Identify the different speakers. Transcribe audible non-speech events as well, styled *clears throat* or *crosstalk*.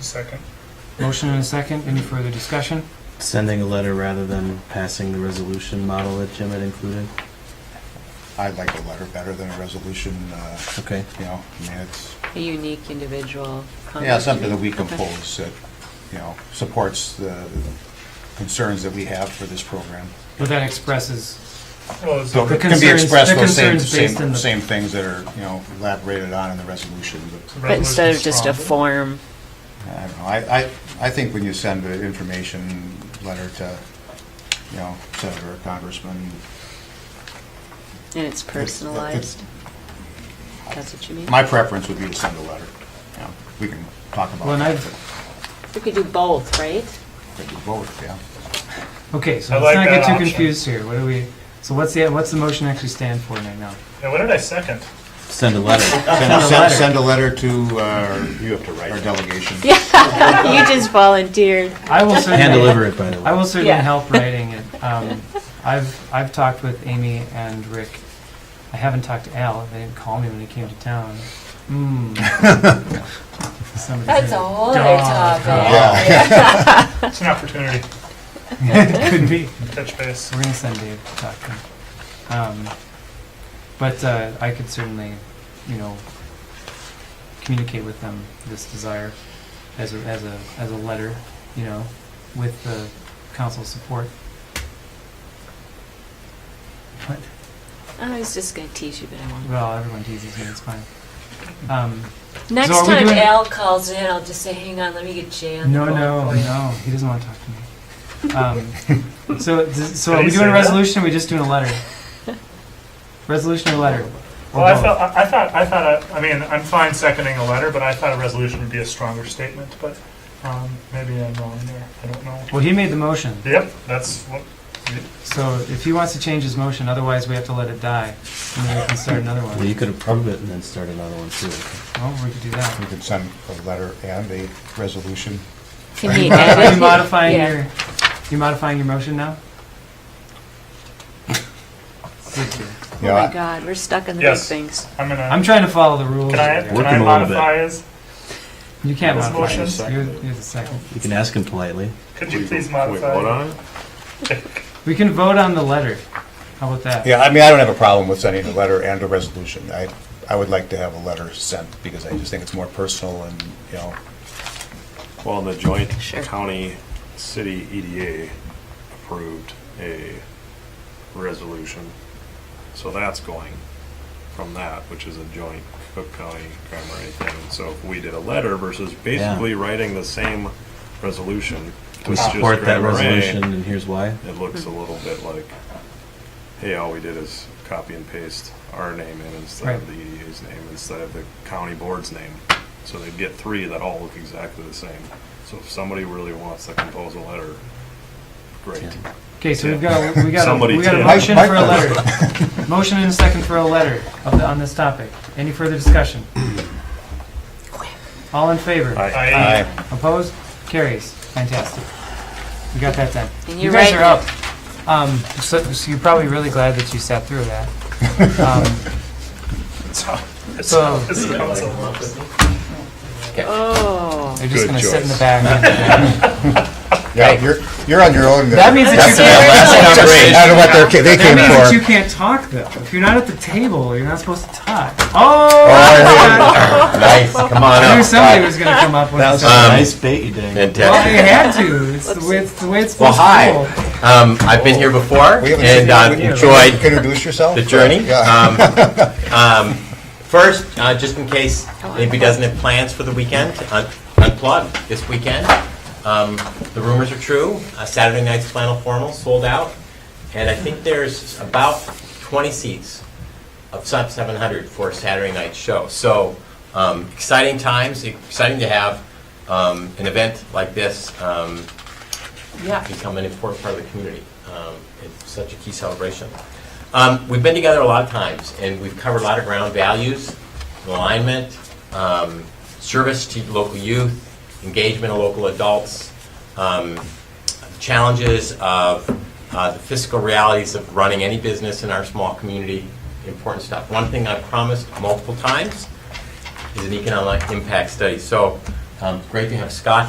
Speaker 1: Second.
Speaker 2: Motion and a second. Any further discussion?
Speaker 3: Sending a letter rather than passing the resolution model that Jim had included?
Speaker 4: I like a letter better than a resolution, uh,
Speaker 3: Okay.
Speaker 4: you know, I mean, it's,
Speaker 5: A unique individual.
Speaker 4: yeah, something that we
Speaker 5: Okay.
Speaker 4: compose that, you know, supports the concerns that we have for this program.
Speaker 2: But that expresses,
Speaker 1: Well, is
Speaker 4: So
Speaker 2: The
Speaker 4: it
Speaker 1: it
Speaker 4: can be
Speaker 2: concerns-
Speaker 4: expressed
Speaker 2: the
Speaker 4: those same,
Speaker 2: concerns based in
Speaker 4: same,
Speaker 2: the-
Speaker 4: same things that are, you know, elaborated on in the resolution, but,
Speaker 5: But instead of just a
Speaker 1: form,
Speaker 5: form,
Speaker 4: I don't know, I, I, I think when you send an information letter to, you know, Senator or Congressman,
Speaker 5: and it's personalized, that's what you mean?
Speaker 4: my preference would be to send a letter. You know, We can talk about
Speaker 2: well, and
Speaker 4: that,
Speaker 2: I've,
Speaker 5: We could do both, right?
Speaker 4: but we vote, yeah.
Speaker 2: okay, so
Speaker 1: I
Speaker 2: let's
Speaker 1: like
Speaker 2: not get
Speaker 1: that
Speaker 2: too
Speaker 1: option.
Speaker 2: confused here. What do we, so what's the, what's the motion actually stand for right now?
Speaker 1: Yeah, what did I second?
Speaker 3: Send a letter.
Speaker 4: Send
Speaker 2: a
Speaker 4: send-
Speaker 2: letter.
Speaker 4: send a letter to our, you have to write, our delegation.
Speaker 5: Yeah, you just volunteered.
Speaker 2: I will certainly.
Speaker 3: Hand deliver it, by the way.
Speaker 2: I will certainly
Speaker 5: Yeah.
Speaker 2: help writing it. Um, I've, I've talked with Amy and Rick. I haven't talked to Al. They didn't call me when he came to town. Hmm. Somebody
Speaker 6: That's a
Speaker 2: said- *laughs*
Speaker 6: whole other
Speaker 2: Dog.
Speaker 6: topic.
Speaker 4: Yeah.
Speaker 1: It's an opportunity,
Speaker 2: Could be.
Speaker 1: touch
Speaker 2: *laughs*
Speaker 1: base.
Speaker 2: We're gonna send Dave to talk to him. Um, but uh, I could certainly, you know, communicate with them this desire as a, as a, as a letter, you know, with the council's support. What?
Speaker 5: I was just gonna tease you, but I won't.
Speaker 2: Well, everyone teases me, it's fine. Um,
Speaker 5: Next
Speaker 2: are we
Speaker 5: time
Speaker 2: doing-
Speaker 5: Al calls in, I'll just say, hang on, let me get Jay on the
Speaker 2: no,
Speaker 5: phone
Speaker 2: no,
Speaker 5: for you."
Speaker 2: no, he doesn't want to talk to me.
Speaker 1: *laughs*
Speaker 2: Um, so, does- so are
Speaker 1: Did
Speaker 2: we
Speaker 1: he say
Speaker 2: doing
Speaker 1: that?
Speaker 2: a resolution or are we just doing
Speaker 1: *laughs*
Speaker 2: a letter? Resolution or letter? Or
Speaker 1: Well, I
Speaker 2: both?
Speaker 1: felt, I I thought, I thought, I I mean, I'm fine seconding a letter, but I thought a resolution would be a stronger statement, but um, maybe I'm wrong there, I don't know.
Speaker 2: Well, he made the motion.
Speaker 1: Yep, that's what,
Speaker 2: So if he wants to change his motion, otherwise we have to let it die, and then we can start another
Speaker 3: Well,
Speaker 2: one.
Speaker 3: you could approve it and then start another one too.
Speaker 2: Oh, we could do
Speaker 4: We *laughs*
Speaker 2: that.
Speaker 4: could send a letter and a resolution.
Speaker 5: Can he
Speaker 2: Are
Speaker 5: edit?
Speaker 2: you modifying
Speaker 5: Yeah.
Speaker 2: your, you modifying your motion now? Good deal.
Speaker 5: Oh
Speaker 4: Yeah,
Speaker 5: my God, we're stuck on the big
Speaker 1: Yes.
Speaker 5: things.
Speaker 1: I'm
Speaker 2: I'm
Speaker 1: gonna,
Speaker 2: trying to follow the rules.
Speaker 1: can I,
Speaker 2: here.
Speaker 1: can
Speaker 3: Working
Speaker 1: I
Speaker 3: a little bit.
Speaker 1: modify his?
Speaker 2: You can't
Speaker 1: This
Speaker 2: modify
Speaker 1: motion?
Speaker 2: this. You're, you're the second.
Speaker 3: You can ask him politely.
Speaker 1: Could you please modify?
Speaker 2: We can vote on the letter. How about that?
Speaker 4: Yeah, I mean, I don't have a problem with sending a letter and a resolution. I, I would like to have a letter sent because I just think it's more personal and, you know,
Speaker 7: Well, and the joint
Speaker 5: Sure.
Speaker 7: county city EDA approved a resolution. So that's going from that, which is a joint Cook County primary thing. So if we did a letter versus basically writing the same resolution.
Speaker 3: We
Speaker 7: it's just
Speaker 3: support that
Speaker 7: grammar A,
Speaker 3: resolution and here's why.
Speaker 7: It looks a little bit like, hey, all we did is copy and paste our name in instead of the
Speaker 2: Right.
Speaker 7: EDA's name, instead of the county board's name. So they'd get three that all look exactly the same. So if somebody really wants to compose a letter, great.
Speaker 2: Okay, so we've got, we got, a-
Speaker 7: Somebody
Speaker 2: we got a
Speaker 7: did.
Speaker 2: motion for a letter. Motion and a second for a letter of the, on this topic. Any
Speaker 1: *clears throat*
Speaker 2: further discussion? All in favor?
Speaker 7: I-
Speaker 1: I,
Speaker 2: Opposed? Carries. Fantastic. We got that done.
Speaker 5: And
Speaker 2: You
Speaker 5: you're
Speaker 2: guys
Speaker 5: right.
Speaker 2: are up. Um, so, so you're probably really glad that you sat through that. Um, so
Speaker 1: this is council.
Speaker 5: Oh.
Speaker 2: they're just
Speaker 7: Good
Speaker 2: going to sit in the
Speaker 7: choice.
Speaker 2: back.
Speaker 4: yeah, you're, you're on your own.
Speaker 2: that means that you can't.
Speaker 4: That's great. I don't know what they're, ca- they
Speaker 2: That
Speaker 4: came
Speaker 2: means that you
Speaker 4: for.
Speaker 2: can't talk though. If you're not at the table, you're not supposed to talk.
Speaker 8: Oh,
Speaker 2: Oh,
Speaker 8: yeah. nice. Come on
Speaker 2: I knew
Speaker 8: up.
Speaker 2: somebody was going to come up with
Speaker 3: That was a
Speaker 2: something.
Speaker 3: nice bait you did.
Speaker 2: Well,
Speaker 8: Fantastic.
Speaker 2: I had to. It's the way it's, the way it's
Speaker 8: Well,
Speaker 2: supposed
Speaker 8: hi.
Speaker 2: to go.
Speaker 8: Um, I've been here before
Speaker 4: We haven't
Speaker 8: and
Speaker 4: seen
Speaker 8: uh,
Speaker 4: you.
Speaker 8: enjoyed
Speaker 4: Introduce yourself.
Speaker 8: the journey.
Speaker 4: Yeah.
Speaker 8: Um, um, first, uh, just in case anybody doesn't have plans for the weekend, un- unplug this weekend. Um, the rumors are true. Uh, Saturday night's flannel formal sold out, and I think there's about 20 seats of sub 700 for a Saturday night show. So um, exciting times, exciting to have um, an event like this. Um, yeah, become an important part of the community. Um, it's such a key celebration. Um, we've been together a lot of times, and we've covered a lot of ground values, alignment, um, service to local youth, engagement of local adults, um, challenges of uh, the fiscal realities of running any business in our small community, important stuff. One thing I've promised multiple times is an economic impact study. So Um, Great to have Scott